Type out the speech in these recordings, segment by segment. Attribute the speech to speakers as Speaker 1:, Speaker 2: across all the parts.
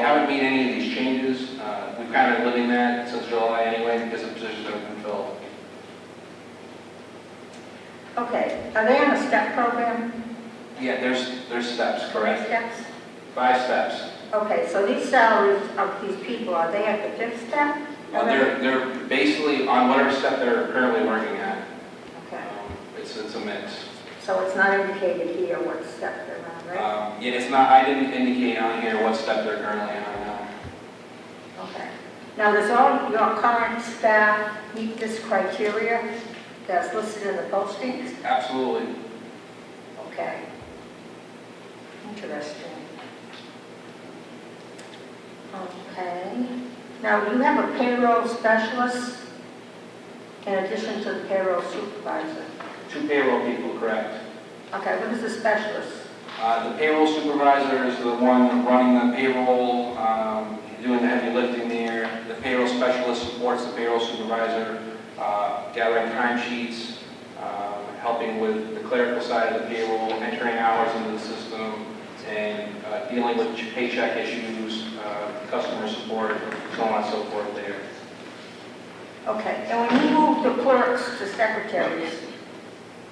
Speaker 1: Uh,
Speaker 2: Are they on a step program?
Speaker 1: Yeah, there's, there's steps,
Speaker 2: Three
Speaker 1: correct?
Speaker 2: steps?
Speaker 1: Five steps.
Speaker 2: Okay, so these salaries of these people, are they at the fifth step?
Speaker 1: Uh, They're, they're basically on whatever step they're currently working at. Um,
Speaker 2: Okay,
Speaker 1: It's, it's a mix.
Speaker 2: so it's not indicated here what step they're on, right?
Speaker 1: Um, Yeah, it's not, I didn't indicate on here what step they're currently on now.
Speaker 2: Okay. Now, does all your current staff meet this criteria that's listed in the postings?
Speaker 1: Absolutely.
Speaker 2: Okay. Interesting. Okay. Now, you have a payroll specialist in addition to the payroll supervisor.
Speaker 1: Two payroll people, correct?
Speaker 2: Okay, what is a specialist?
Speaker 1: Uh, The payroll supervisor is the one running the payroll, um, doing the heavy lifting there. The payroll specialist supports the payroll supervisor, uh, gathering timesheets, um, helping with the clerical side of the payroll, entering hours into the system, and uh, dealing with paycheck issues, uh, customer support, so on and so forth there.
Speaker 2: Okay, and when you move the clerks to secretaries,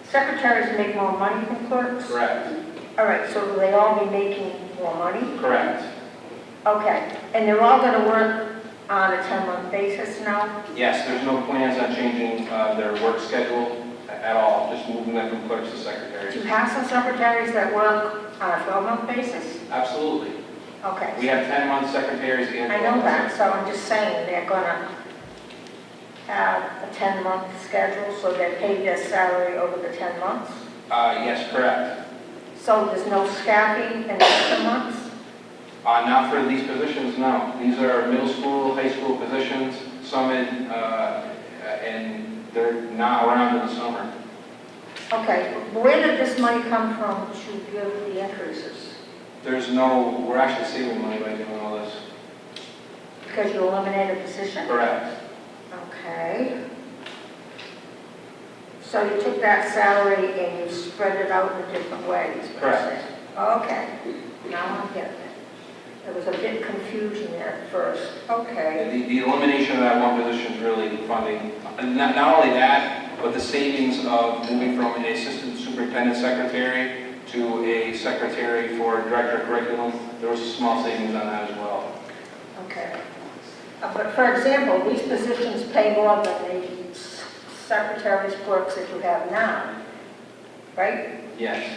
Speaker 2: secretaries make more money than clerks?
Speaker 1: Correct?
Speaker 2: All right, so will they all be making more money?
Speaker 1: Correct.
Speaker 2: Okay, and they're all going to work on a 10-month basis now?
Speaker 1: Yes, there's no plans on changing uh, their work schedule a- at all, just moving them from clerks to secretaries.
Speaker 2: Do you have some secretaries that work on a 12-month basis?
Speaker 1: Absolutely. We
Speaker 2: Okay,
Speaker 1: have 10-month secretaries and...
Speaker 2: I know that, so I'm just saying they're going to have a 10-month schedule, so they're paid their salary over the 10 months?
Speaker 1: Uh, yes, correct.
Speaker 2: So there's no staffing in the 10 months?
Speaker 1: Uh, not for these positions, no. These are middle school, high school positions, some in, uh, and they're not around in the summer.
Speaker 2: Okay, where did this money come from to give the increases?
Speaker 1: There's no, we're actually saving money by doing all this.
Speaker 2: Because you eliminated a position?
Speaker 1: Correct.
Speaker 2: Okay. So you took that salary and you spread it out in different ways?
Speaker 1: Correct.
Speaker 2: Okay, now I'm getting it. There was a bit confusion there at first. Okay,
Speaker 1: The, the elimination of that one position is really funding, and not, not only that, but the savings of moving from an assistant superintendent secretary to a secretary for director of curriculum, there was a small savings on that as well.
Speaker 2: okay. Uh, But for example, these positions pay more than the s- secretaries, clerks that you have now, right?
Speaker 1: Yes,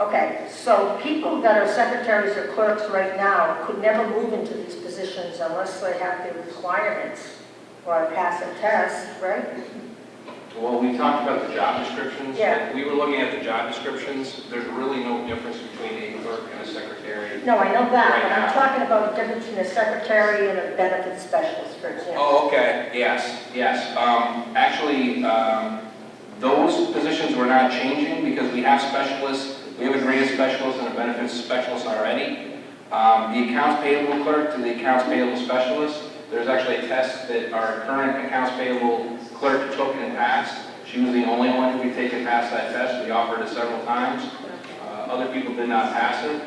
Speaker 2: Okay, so people that are secretaries or clerks right now could never move into these positions unless they have the requirements or pass a test, right?
Speaker 1: well, we talked about the job descriptions.
Speaker 2: Yeah.
Speaker 1: We were looking at the job descriptions, there's really no difference between a clerk and a secretary.
Speaker 2: No, I know that, but
Speaker 1: Right now.
Speaker 2: I'm talking about the difference between a secretary and a benefit specialist, for example.
Speaker 1: Oh, okay, yes, yes. Um, Actually, um, those positions were not changing because we have specialists, we have a grant specialist and a benefits specialist already. Um, The accounts payable clerk to the accounts payable specialist, there's actually a test that our current accounts payable clerk took and passed. She was the only one who could take and pass that test, we offered it several times. Uh, Other people did not pass it.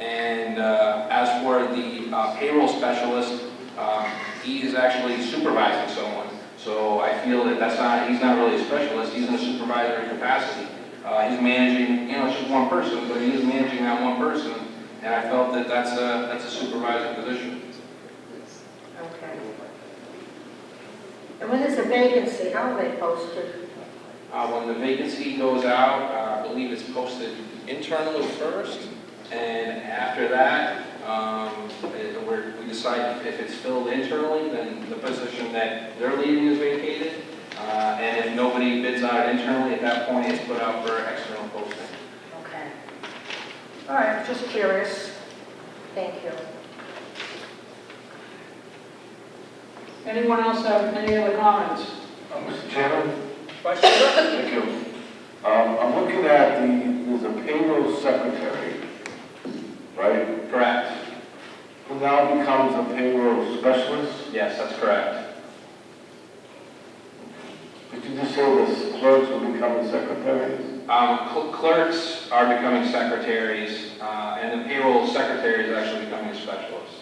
Speaker 1: And uh, as for the uh, payroll specialist, um, he is actually supervising someone. So I feel that that's not, he's not really a specialist, he's in a supervisory capacity. Uh, He's managing, you know, it's just one person, but he is managing that one person. And I felt that that's a, that's a supervisor position.
Speaker 2: Okay. And when there's a vacancy, how are they posted?
Speaker 1: Uh, When the vacancy goes out, uh, I believe it's posted internally first, and after that, um, it- we're- we decide if it's filled internally, then the position that they're leaving is vacated, Uh, and if nobody bids on it internally, at that point, it's put out for external posting.
Speaker 2: Okay. All right, just curious. Thank you.
Speaker 3: Anyone else have any other comments?
Speaker 4: Uh, Mr. Chairman,
Speaker 3: Questions?
Speaker 4: thank you. Um, I'm looking at the, there's a payroll secretary, right?
Speaker 1: Correct.
Speaker 4: Who now becomes a payroll specialist.
Speaker 1: Yes, that's correct.
Speaker 4: Did you just say this clerks will become the secretaries?
Speaker 1: Um, cl- Clerks are becoming secretaries, uh, and the payroll secretary is actually becoming a specialist.